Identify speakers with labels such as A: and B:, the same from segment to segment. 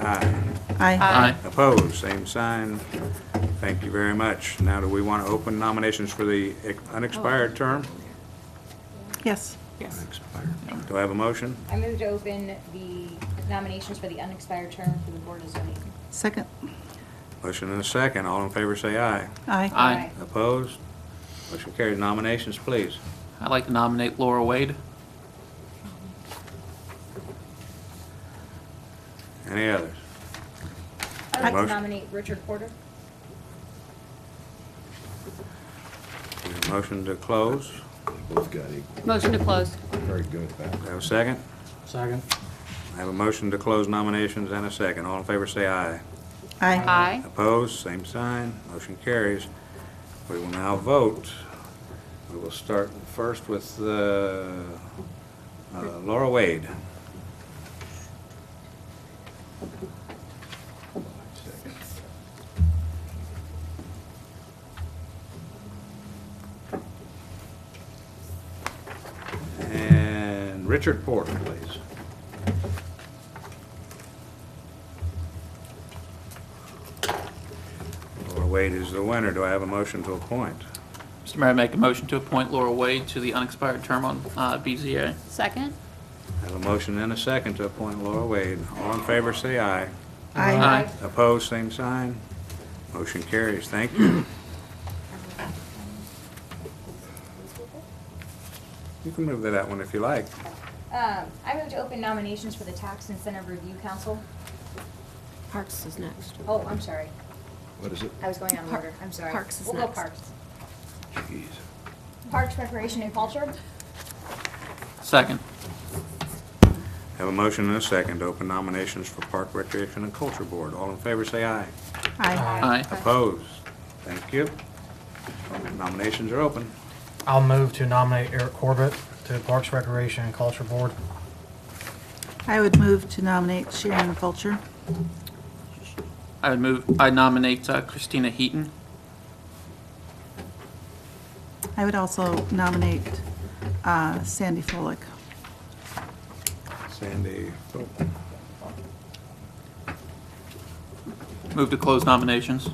A: Aye.
B: Aye.
A: Opposed, same sign. Thank you very much. Now, do we want to open nominations for the ex- unexpired term?
B: Yes.
C: Yes.
A: Do I have a motion?
D: I move to open the nominations for the unexpired term for the Board of Zoning.
B: Second?
A: Motion and a second. All in favor, say aye.
B: Aye.
C: Aye.
A: Opposed? Motion carried. Nominations, please.
C: I'd like to nominate Laura Wade.
A: Any others?
D: I'd like to
A: Motion.
D: nominate Richard Porter.
A: Is there a Motion to close.
E: Both got equal,
F: Motion to close.
E: very good back.
A: Do I have a second?
G: Second.
A: I have a motion to close nominations and a second. All in favor, say aye.
B: Aye.
F: Aye.
A: Opposed, same sign, motion carries. We will now vote. We will start first with uh, uh, Laura Wade. And Richard Porter, please. Laura Wade is the winner. Do I have a motion to appoint?
C: Mr. Mayor, I make a motion to appoint Laura Wade to the unexpired term on uh, BZA.
F: Second?
A: I have a motion and a second to appoint Laura Wade. All in favor, say aye.
B: Aye.
A: Opposed, same sign. Motion carries. Thank you. You can move to that one if you like.
D: Um, I move to open nominations for the Tax Incentive Review Council.
F: Parks is next.
D: Oh, I'm sorry.
E: What is it?
D: I was going out of
F: Par-
D: order. I'm sorry.
F: Parks is
D: We'll go
F: next.
D: Parks.
E: Jeez.
D: Parks, Recreation, and Culture.
C: Second.
A: Have a motion and a second to open nominations for Park Recreation and Culture Board. All in favor, say aye.
B: Aye.
C: Aye.
A: Opposed? Thank you. Nominations are open.
G: I'll move to nominate Eric Corbett to Parks Recreation and Culture Board.
B: I would move to nominate Sharon Fulcher.
C: I would move, I nominate uh, Christina Heaton.
B: I would also nominate uh, Sandy Follick.
A: Sandy,
C: Move to close nominations.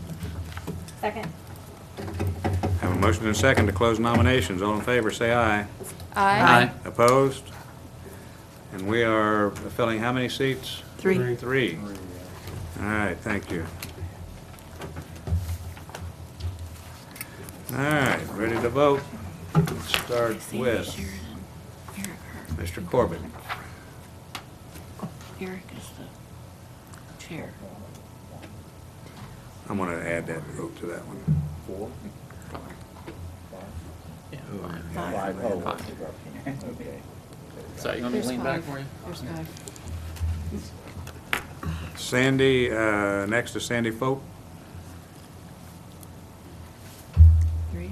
D: Second.
A: have a motion and a second to close nominations. All in favor, say aye.
F: Aye.
A: Opposed? And we are filling how many seats?
B: Three.
A: Three. All right, thank you. All right, ready to vote? Let's start with Mr. Corbett.
F: Eric is the chair.
A: I'm gonna add that vote to that one.
C: So you want me to lean back for you?
F: There's five.
A: Sandy, uh, next to Sandy Folk.
F: Three.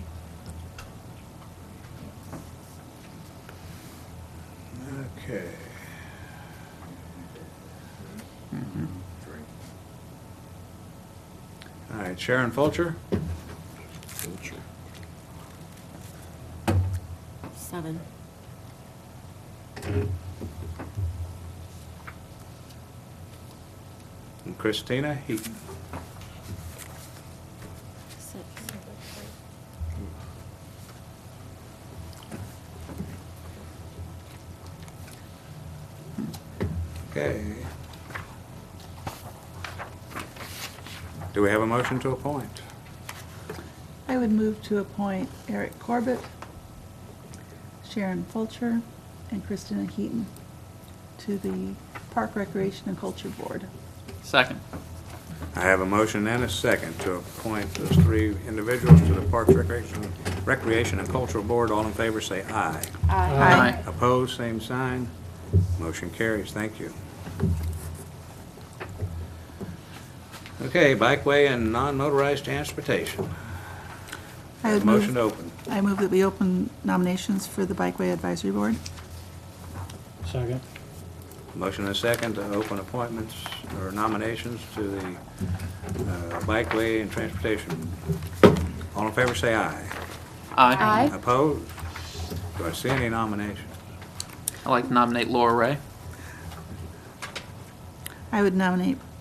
A: Okay. All right, Sharon Fulcher,
E: Culture.
F: Seven.
A: and Christina Heaton.
F: Six.
A: Okay. Do we have a motion to appoint?
B: I would move to appoint Eric Corbett, Sharon Fulcher, and Christina Heaton to the Park Recreation and Culture Board.
C: Second.
A: I have a motion and a second to appoint those three individuals to the Parks Recreation, Recreation and Cultural Board. All in favor, say aye.
B: Aye.
A: Opposed, same sign. Motion carries. Thank you. Okay, bikeway and non-motorized transportation.
B: I would
A: Motion
B: move,
A: to open.
B: I move that we open nominations for the Bikeway Advisory Board.
G: Second.
A: Motion and a second to open appointments or nominations to the uh, Bikeway and Transportation. All in favor, say aye.
C: Aye.
A: Opposed? Do I see any nominations?
C: I'd like to nominate Laura Ray.
B: I would nominate